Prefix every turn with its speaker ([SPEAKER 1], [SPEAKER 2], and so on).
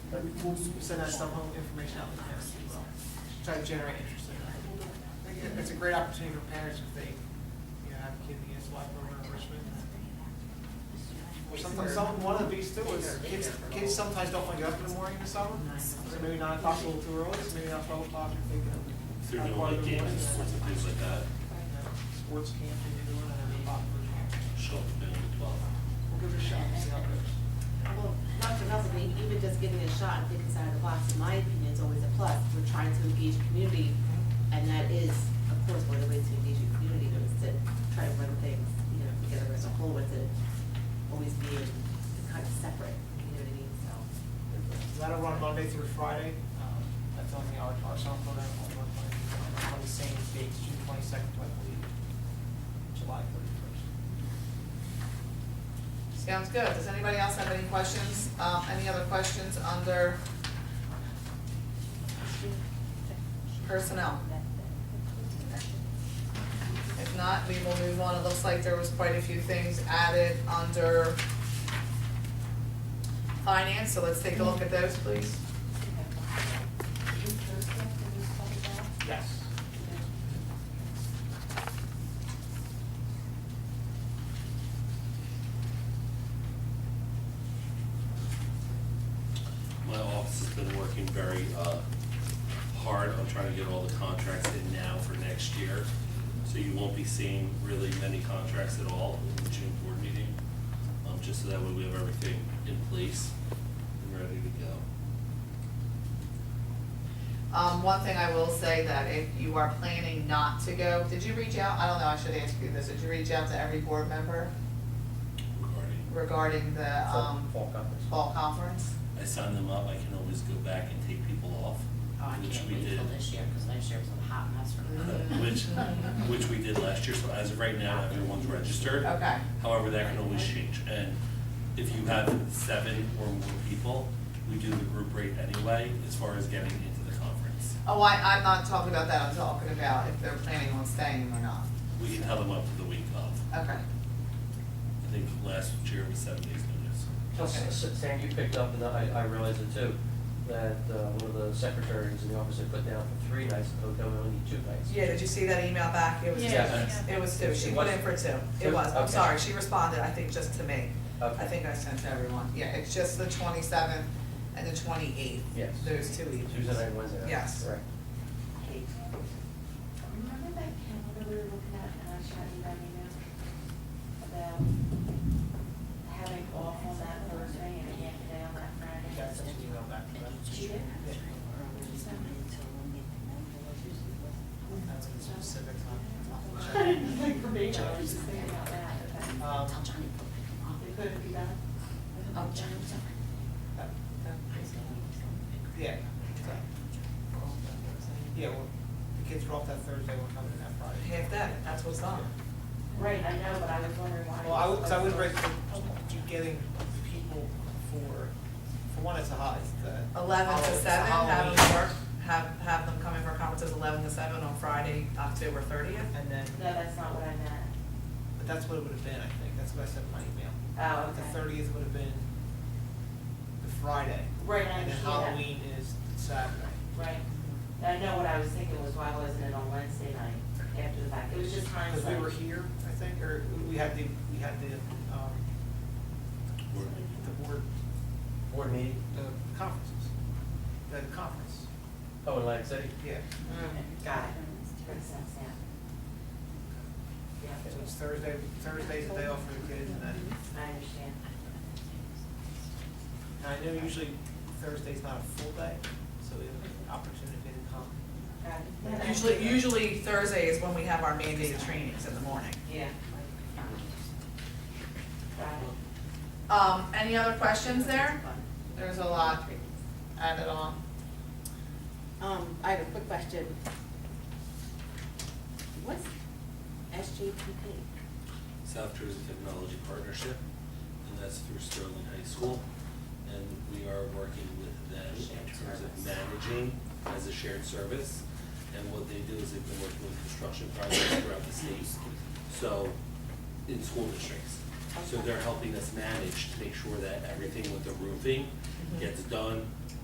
[SPEAKER 1] but we'll send out some whole information out to parents as well, try to generate interest in it. I think It's a great opportunity for parents if they, you know, have a kid in the SY program in Richmond. Or sometimes, some, one of the beats too is, kids, kids sometimes don't want to get up in the morning in the summer, so maybe nine o'clock a little too early, so maybe not twelve o'clock if they
[SPEAKER 2] Through
[SPEAKER 1] can.
[SPEAKER 2] no like games and sports and things like that,
[SPEAKER 1] Sports camp, and you're doing it, and popular.
[SPEAKER 2] show up at noon to twelve.
[SPEAKER 1] We'll give it a shot, and see how it goes.
[SPEAKER 3] Well, not for nothing, e- even just getting a shot and thinking outside the box, in my opinion, is always a plus. We're trying to engage community, and that is, of course, one of the ways to engage your community, is to try to run things, you know, together as a whole, with it always being kind of separate, you know what I mean, so.
[SPEAKER 1] That'll run Monday through Friday. Um, That's on the, our, our summer program will run Monday, on the same dates, June twenty-second, I believe, July thirty-first.
[SPEAKER 4] Sounds good. Does anybody else have any questions? Um, any other questions under personnel? If not, we will move on. It looks like there was quite a few things added under finance, so let's take a look at those, please.
[SPEAKER 1] Yes.
[SPEAKER 2] My office has been working very, uh, hard on trying to get all the contracts in now for next year. So you won't be seeing really many contracts at all in the June board meeting, um, just so that way we have everything in place and ready to go.
[SPEAKER 4] Um, one thing I will say that if you are planning not to go, did you reach out? I don't know, I should ask you this. Did you reach out to every board member
[SPEAKER 2] Regarding,
[SPEAKER 4] regarding the, um,
[SPEAKER 1] conference.
[SPEAKER 4] fall conference?
[SPEAKER 2] I signed them up, I can always go back and take people off,
[SPEAKER 5] Oh, I
[SPEAKER 2] which
[SPEAKER 5] can't
[SPEAKER 2] we
[SPEAKER 5] wait
[SPEAKER 2] did.
[SPEAKER 5] till this year, because last year was a hot mess for
[SPEAKER 4] Mhm.
[SPEAKER 5] me.
[SPEAKER 2] Which, which we did last year, so as of right now, everyone's registered.
[SPEAKER 4] Okay.
[SPEAKER 2] However, that can always change, and if you have seven or more people, we do the group rate anyway, as far as getting into the conference.
[SPEAKER 4] Oh, I, I'm not talking about that, I'm talking about if they're planning on staying or not.
[SPEAKER 2] We can have them up to the week of,
[SPEAKER 4] Okay,
[SPEAKER 2] I think last year was seven days notice.
[SPEAKER 6] Plus,
[SPEAKER 4] Okay.
[SPEAKER 6] S- Sam, you picked up, and I, I realized it too, that uh, one of the secretaries in the office had put down for three nights, the hotel would only need two nights.
[SPEAKER 4] yeah, did you see that email back? It was two,
[SPEAKER 6] Yeah.
[SPEAKER 4] it was two, she put in for two, it
[SPEAKER 6] Two?
[SPEAKER 4] was, I'm
[SPEAKER 6] Okay.
[SPEAKER 4] sorry, she responded, I think, just to me.
[SPEAKER 6] Okay.
[SPEAKER 4] I think I sent to everyone, yeah, it's just the twenty-seventh and the twenty-eighth.
[SPEAKER 6] Yes.
[SPEAKER 4] Those two evenings.
[SPEAKER 6] Tuesday night, and Wednesday night.
[SPEAKER 4] Yes.
[SPEAKER 6] Right.
[SPEAKER 7] Remember that calendar we were looking at, and I shot you that email about having off on that Thursday and a half a day on that Friday?
[SPEAKER 1] Got such an email back to them.
[SPEAKER 7] She did?
[SPEAKER 1] That's a specific Uh,
[SPEAKER 7] No,
[SPEAKER 1] time.
[SPEAKER 7] I was just thinking about that, about-
[SPEAKER 1] Um,
[SPEAKER 5] Tell Johnny, put him
[SPEAKER 7] They
[SPEAKER 5] on.
[SPEAKER 7] couldn't be done.
[SPEAKER 5] Oh, Johnny, was up.
[SPEAKER 1] that-
[SPEAKER 5] He's going, he's going.
[SPEAKER 1] Yeah. so, we're off that Thursday. Yeah, well, the kids are off that Thursday, we're coming in that Friday.
[SPEAKER 4] Half day, that's what's on.
[SPEAKER 7] Right, I know, but I was wondering why.
[SPEAKER 1] Well, I would, cause I would
[SPEAKER 7] break.
[SPEAKER 1] recommend you getting people for, for one, it's a hot, it's the.
[SPEAKER 4] Eleven to
[SPEAKER 1] Halloween- it's the
[SPEAKER 4] seven, have them
[SPEAKER 1] Halloween.
[SPEAKER 4] work, have, have them come in for conferences eleven to seven on Friday, October thirtieth.
[SPEAKER 1] And then,
[SPEAKER 7] No, that's not what I meant.
[SPEAKER 1] but that's what it would have been, I think, that's what I said in my email.
[SPEAKER 7] Oh,
[SPEAKER 1] But The
[SPEAKER 7] okay.
[SPEAKER 1] thirtieth would have been the Friday.
[SPEAKER 7] Right, I
[SPEAKER 1] And then
[SPEAKER 7] understand that.
[SPEAKER 1] Halloween is Saturday.
[SPEAKER 7] Right. I know what I was thinking was why wasn't it on Wednesday night after the fact? It was just
[SPEAKER 1] Because
[SPEAKER 7] hindsight.
[SPEAKER 1] we were here, I think, or we- we had the, we had the, um,
[SPEAKER 2] Or-
[SPEAKER 1] the board,
[SPEAKER 6] Board meeting,
[SPEAKER 1] the conferences, the conference,
[SPEAKER 6] oh, in Atlantic City,
[SPEAKER 1] yeah.
[SPEAKER 7] Mm, Got it. Makes sense now.
[SPEAKER 1] So
[SPEAKER 7] Yeah,
[SPEAKER 1] it's Thursday, Thursday's the day off for the kids, and then,
[SPEAKER 7] I understand.
[SPEAKER 1] and I know usually Thursday's not a full day, so we have an opportunity to come.
[SPEAKER 7] Got it.
[SPEAKER 4] Usually, usually Thursday is when we have our mandated trainings in the morning.
[SPEAKER 7] Yeah. Got it.
[SPEAKER 4] Um, any other questions there? There's a lot added on.
[SPEAKER 3] Um, I have a quick question. What's SJPP?
[SPEAKER 2] South Jersey Technology Partnership, and that's through Sterling High School. And we are working with them in terms of managing as a shared service. And what they do is they've been working with construction projects throughout the state, so, in school districts. So they're helping us manage to make sure that everything with the roofing gets done,